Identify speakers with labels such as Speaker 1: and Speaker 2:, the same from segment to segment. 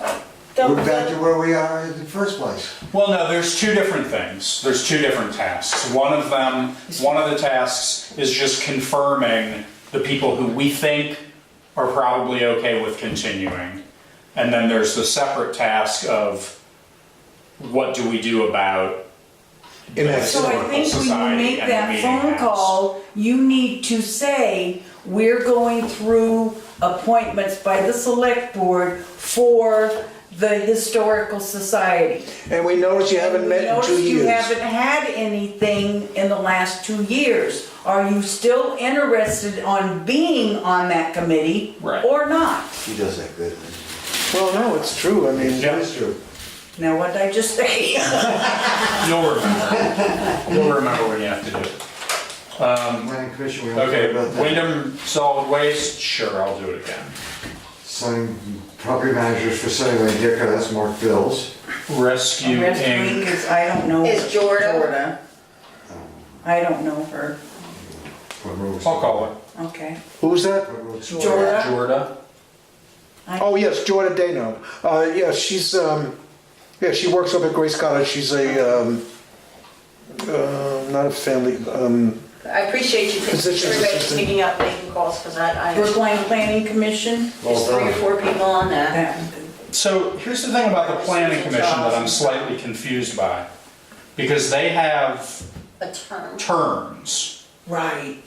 Speaker 1: We're
Speaker 2: don't,
Speaker 1: back to where we are in the first place.
Speaker 3: Well, no, there's two different things. There's two different tasks. One of them, one of the tasks is just confirming the people who we think are probably okay with continuing. And then there's the separate task of what do we do about
Speaker 2: so I think when
Speaker 3: Society
Speaker 2: you make
Speaker 3: and
Speaker 2: that
Speaker 3: meeting
Speaker 2: phone
Speaker 3: house.
Speaker 2: call, you need to say, we're going through appointments by the select board for the historical society.
Speaker 4: And we notice you haven't met in two
Speaker 2: Notice You
Speaker 4: years.
Speaker 2: haven't had anything in the last two years. Are you still interested on being on that committee?
Speaker 3: Right.
Speaker 2: Or not?
Speaker 1: He does that good.
Speaker 4: Well, no, it's true, I mean,
Speaker 3: Yeah.
Speaker 1: That is true.
Speaker 2: Now, what did I just say?
Speaker 3: you'll remember. You'll remember when you have to do it. Um,
Speaker 1: Planning commission, we don't care
Speaker 3: okay,
Speaker 1: about that.
Speaker 3: Wyndham Solid Waste, sure, I'll do it again.
Speaker 1: Sign property managers for Sunny Lane Dicker, that's Mark Bills.
Speaker 3: Rescue
Speaker 2: Rest
Speaker 3: Inc.
Speaker 2: week is, I don't know.
Speaker 5: Is Jordan?
Speaker 2: Jordan. I don't know her,
Speaker 1: What road is
Speaker 3: I'll call it.
Speaker 2: okay.
Speaker 4: who's that?
Speaker 1: What road is it?
Speaker 2: Jordan.
Speaker 3: Jorda.
Speaker 4: Oh, yes, Jordan Dano. Uh, yeah, she's, um, yeah, she works up at Grace College, she's a, um, uh, not a family, um,
Speaker 5: I appreciate you,
Speaker 4: Physician's
Speaker 5: everybody
Speaker 4: assistant.
Speaker 5: picking up, making calls, because I, I, there's
Speaker 2: Brookline Planning Commission,
Speaker 5: three or four people on that.
Speaker 2: that,
Speaker 3: So here's the thing about the planning commission that I'm slightly confused by. Because they have
Speaker 5: A term.
Speaker 3: terms.
Speaker 2: right.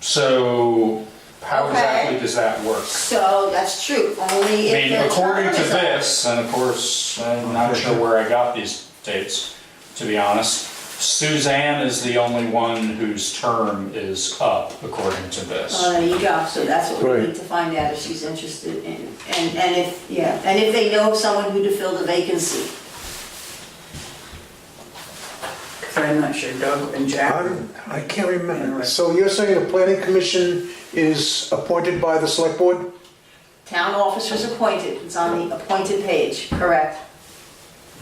Speaker 3: So how
Speaker 5: Okay.
Speaker 3: exactly does that work?
Speaker 5: So that's true, only
Speaker 3: I
Speaker 5: if
Speaker 3: mean,
Speaker 5: the
Speaker 3: according
Speaker 5: term
Speaker 3: to
Speaker 5: is up.
Speaker 3: this, and of course, I'm not sure where I got these dates, to be honest, Suzanne is the only one whose term is up, according to
Speaker 5: Oh,
Speaker 3: this.
Speaker 5: there you go, so that's what we
Speaker 4: Right.
Speaker 5: need to find out if she's interested in, and, and if, yeah, and if they know of someone who to fill the vacancy.
Speaker 2: Cause I'm not sure Doug and Jack.
Speaker 4: I'm, I can't remember. So you're saying the planning commission is appointed by the select board?
Speaker 5: Town officers appointed, it's on the appointed page, correct?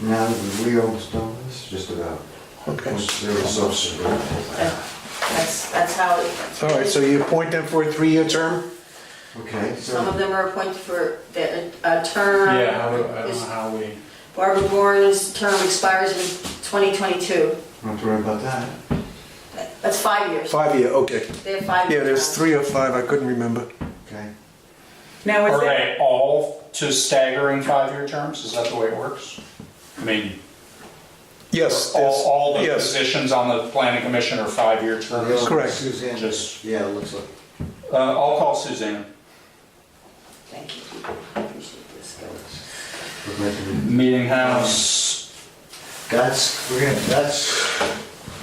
Speaker 1: Now, that we almost done this, just about.
Speaker 4: Okay.
Speaker 1: There was also,
Speaker 5: That's, that's how it.
Speaker 4: All right, so you appoint them for a three-year term?
Speaker 1: okay,
Speaker 5: Some of
Speaker 1: so
Speaker 5: them are appointed for their, a term.
Speaker 3: Yeah, how do- I don't
Speaker 5: uh, is-
Speaker 3: know how we,
Speaker 5: Barbara Bourne's term expires in 2022.
Speaker 1: don't have to worry about that.
Speaker 5: That's five years.
Speaker 4: Five-year, okay.
Speaker 5: They have five years.
Speaker 4: Yeah, there's
Speaker 5: now.
Speaker 4: three or five, I couldn't remember.
Speaker 1: Okay.
Speaker 2: Now, is
Speaker 3: are
Speaker 2: that,
Speaker 3: they all to staggering five-year terms? Is that the way it works? I mean,
Speaker 4: Yes,
Speaker 3: all,
Speaker 4: there's-
Speaker 3: all the
Speaker 4: yes.
Speaker 3: positions on the planning commission are five-year terms?
Speaker 4: Correct.
Speaker 1: Suzanne,
Speaker 3: Just-
Speaker 1: yeah, it looks like.
Speaker 3: Uh, I'll call Suzanne.
Speaker 5: Thank you. I appreciate this.
Speaker 1: we're making-
Speaker 3: Meeting house,
Speaker 1: That's, we're gonna, that's,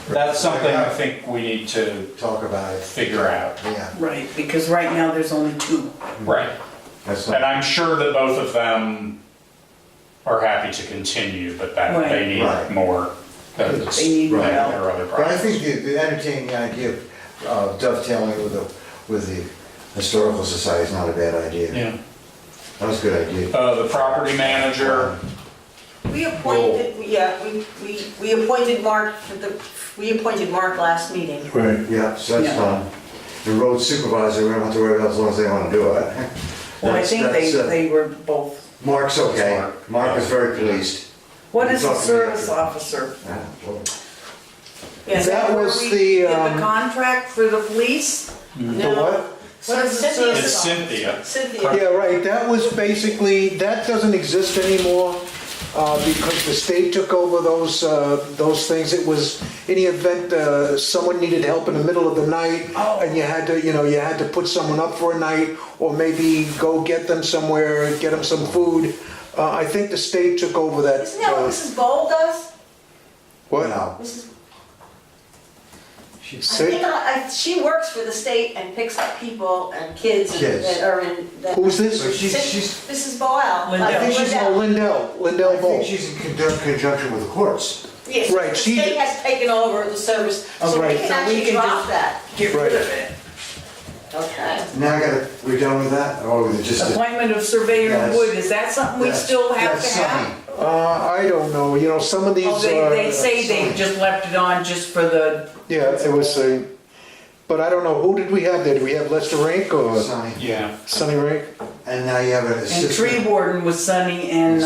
Speaker 3: that's something I think we need to
Speaker 1: talk about it,
Speaker 3: figure out.
Speaker 1: yeah.
Speaker 2: right, because right now there's only two.
Speaker 3: Right.
Speaker 1: That's
Speaker 3: And
Speaker 1: not,
Speaker 3: I'm sure that both of them are happy to continue, but that
Speaker 2: Right.
Speaker 3: they
Speaker 1: Right.
Speaker 3: need more. That it's-
Speaker 2: They need
Speaker 3: that
Speaker 2: help.
Speaker 3: there are other
Speaker 1: but I
Speaker 3: problems.
Speaker 1: think the- the entertaining idea of uh, dovetailing with the, with the historical society is not a bad idea.
Speaker 3: Yeah.
Speaker 1: That was a good idea.
Speaker 3: Uh, the property manager,
Speaker 5: We appointed, yeah, we, we, we appointed Mark for the, we appointed Mark last meeting.
Speaker 4: Right.
Speaker 1: Yeah, so that's
Speaker 2: Yeah.
Speaker 1: fine. The road supervisor, we don't have to worry about as long as they wanna do it.
Speaker 2: Well, I
Speaker 1: That's-
Speaker 2: think they,
Speaker 1: that's, uh,
Speaker 2: they were both.
Speaker 1: Mark's okay.
Speaker 3: Mark.
Speaker 1: Mark is very pleased.
Speaker 2: What is a
Speaker 1: Talking to
Speaker 2: service
Speaker 1: the-
Speaker 2: officer?
Speaker 1: Yeah, well,
Speaker 2: Is
Speaker 4: That
Speaker 2: where
Speaker 4: was
Speaker 2: we
Speaker 4: the,
Speaker 2: did
Speaker 4: um,
Speaker 2: contract for the police?
Speaker 4: The what?
Speaker 2: What is the
Speaker 5: Cynthia-
Speaker 2: service?
Speaker 3: it's Cynthia.
Speaker 5: Cynthia,
Speaker 4: Yeah, right, that was basically, that doesn't exist anymore uh, because the state took over those, uh, those things. It was, any event, uh, someone needed help in the middle of the night
Speaker 3: Oh.
Speaker 4: and you had to, you know, you had to put someone up for a night or maybe go get them somewhere, get them some food. Uh, I think the state took over that.
Speaker 5: isn't that what
Speaker 4: uh,
Speaker 5: Mrs. Bowl does?
Speaker 4: What?
Speaker 1: no.
Speaker 5: Mrs.
Speaker 1: She-
Speaker 5: I
Speaker 4: Say-
Speaker 5: think I, I- she works for the state and picks up people and kids
Speaker 1: Kids.
Speaker 5: that are in. that-
Speaker 4: Who's
Speaker 1: So
Speaker 4: this?
Speaker 1: she- she's,
Speaker 5: Mrs. uh, Bowl.
Speaker 4: I think she's, oh, Lindell,
Speaker 1: I
Speaker 4: Lindell Bowl.
Speaker 1: think she's in conjun- conjunction with the courts.
Speaker 5: Yes,
Speaker 4: Right,
Speaker 5: the
Speaker 4: she-
Speaker 5: state has taken over the service, so we
Speaker 4: Right.
Speaker 5: can
Speaker 2: So we
Speaker 5: actually
Speaker 2: can
Speaker 5: drop
Speaker 2: just-
Speaker 5: that.
Speaker 2: Get rid
Speaker 4: Right.
Speaker 2: of it.
Speaker 5: Okay.
Speaker 1: Now I gotta, we're done with that? Or we just?
Speaker 2: Appointment of surveyor
Speaker 1: Yes.
Speaker 2: Wood, is that something we
Speaker 1: That's-
Speaker 2: still have
Speaker 1: that's
Speaker 2: to have?
Speaker 1: something.
Speaker 4: Uh, I don't know, you know, some of these uh,
Speaker 2: Oh, they,
Speaker 4: are.
Speaker 2: they say they
Speaker 1: Sunny.
Speaker 2: just left it on just for the,
Speaker 4: Yeah, it was a, but I don't know, who did we have there? Did we have Lester Rank or
Speaker 1: Sonny.
Speaker 3: Yeah.
Speaker 4: Sonny Rank?
Speaker 1: And now you have an
Speaker 2: and
Speaker 1: assistant.
Speaker 2: tree warden was Sunny and